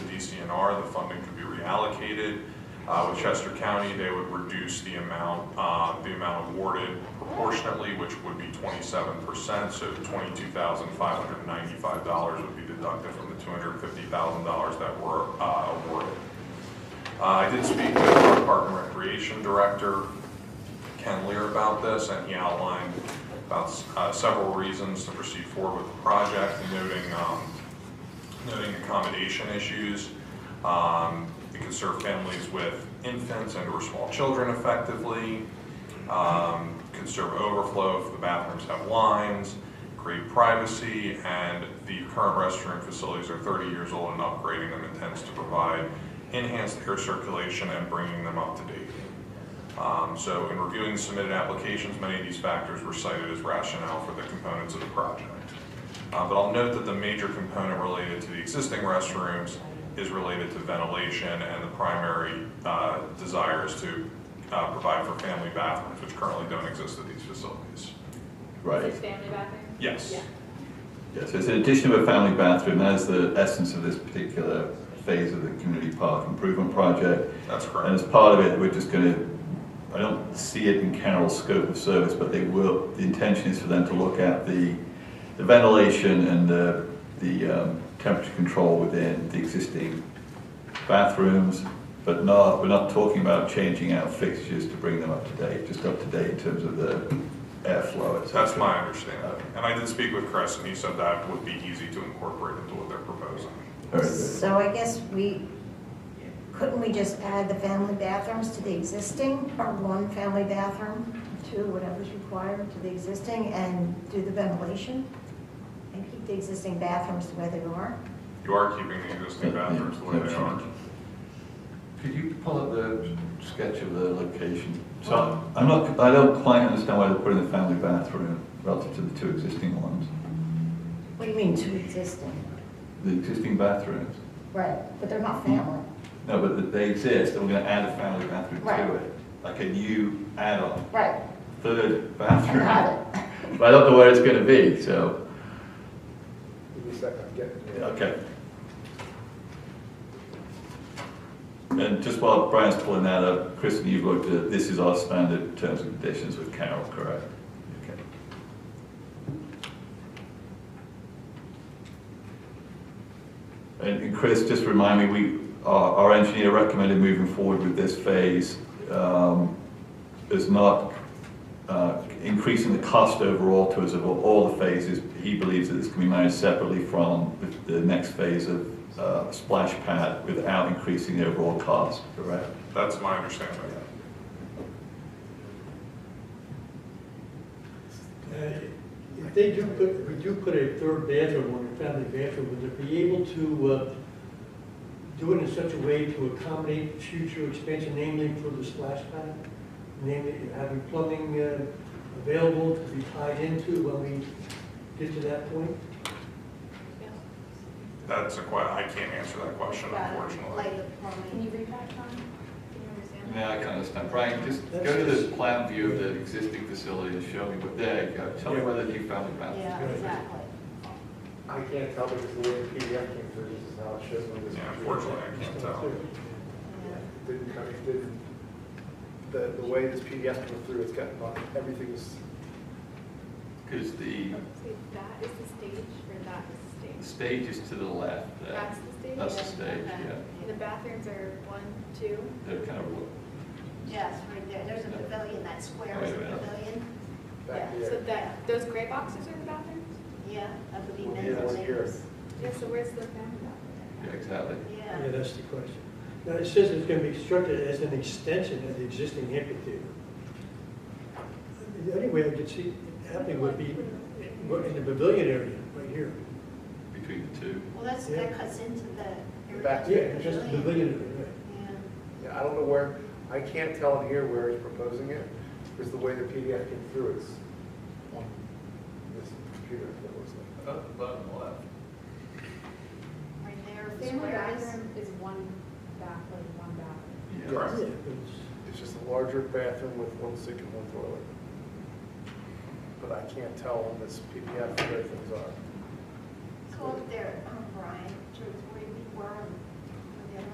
DNR, the funding could be reallocated. Uh, With Chester County, they would reduce the amount, uh, the amount awarded proportionately, which would be twenty-seven percent. So twenty-two thousand five hundred ninety-five dollars would be deducted from the two hundred fifty thousand dollars that were uh, awarded. Uh, I did speak with our Park and Recreation Director, Ken Lear, about this, and he outlined about uh, several reasons to proceed forward with the project, noting, um, noting accommodation issues. Um, It can serve families with infants and or small children effectively, um, can serve overflow if the bathrooms have lines, create privacy, and the current restroom facilities are 30 years old and upgrading them intends to provide enhanced air circulation and bringing them up to date. Um, So in reviewing submitted applications, many of these factors were cited as rationale for the components of the project. Uh, But I'll note that the major component related to the existing restrooms is related to ventilation, and the primary uh, desire is to uh, provide for family bathrooms, which currently don't exist at these facilities. Right, Six family bathroom? Yes. Yeah. yeah, so it's an addition of a family bathroom, that is the essence of this particular phase of the community park improvement project. That's And as correct. part of it, we're just gonna, I don't see it in Carroll's scope of service, but they will, the intention is for them to look at the, the ventilation and the, the um, temperature control within the existing bathrooms, but not, we're not talking about changing out fixtures to bring them up to date, just up to date in terms of the airflow. et cetera. That's my understanding. And I did speak with Chris, and he said that would be easy to incorporate into what they're proposing. Very good. So I guess we, couldn't we just add the family bathrooms to the existing, or one family bathroom, two, whatever's required to the existing, and do the ventilation? And keep the existing bathrooms the way they are? You are keeping the existing bathrooms the way they are. Could you pull up the sketch of the location? So I'm not, I don't quite understand why they're putting the family bathroom relative to the two existing ones. What do you mean, two existing? The existing bathrooms, Right, but they're not family. no, but th- they exist, and we're gonna add a family bathroom to Right. it. Like a new add-on, Right, third I bathroom. got it. But I don't know where it's gonna be, so, Give me a second, I'm getting to it. okay. And just while Brian's pulling that up, Kristen, you've looked at, this is our standard terms and conditions with Carol, correct? Okay. And and Chris, just remind me, we, our our engineer recommended moving forward with this phase um, is not uh, increasing the cost overall to us of all the phases. He believes that this can be managed separately from the- the next phase of uh, splash pad without increasing the overall cost. Correct. That's my understanding. Uh, If they do put, we do put a third bathroom on the family bathroom, would they be able to uh, do it in such a way to accommodate future expansion, namely for the splash pad? Namely, having plumbing uh, available to be tied into when we get to that point? That's a que, I can't answer that question unfortunately. Like the plumbing. Can you read that, Tom? Can you understand? Yeah, I can understand. Brian, just go to the plan view of the existing facility and show me what, there you go. Tell me where the new family bathroom Yeah, exactly. I can't tell because the way the PDF came through, this is how it shows on this. Yeah, computer. unfortunately, I can't tell. Yeah, it Didn't come, it didn't, the, the way this PDF came through, it's got, not- everything is, Because the So that is the stage, or that is the stage stage? is to the left there. That's the stage? That's the stage, Okay. yeah. And The bathrooms are one, two? They're kind of, Yes, right there, there's a pavilion, that square is a pavilion, back So there. that, those gray boxes are the bathrooms? yeah, I believe Well, men's yeah, and that's here. ladies. Yeah, so where's the family bathroom? yeah, exactly. Yeah, Yeah, that's the question. Now, it says it's going to be structured as an extension of the existing amphitheater. The only way I could see it happening would be in the pavilion area, right here. between the two. well, that's, Yeah. that cuts into the. The back. Yeah, just the pavilion area, right. Yeah, Yeah, I don't know where, I can't tell in here where he's proposing it, because the way the PDF came through is on this computer, it looks like. Bottom left. right there, the Family square is, bathroom is one bath, like one bathroom. Yeah. Correct. Yeah, but it's- It's just a larger bathroom with one sink and one toilet. But I can't tell on this PDF where things are. so up there, um, Brian, to where we were on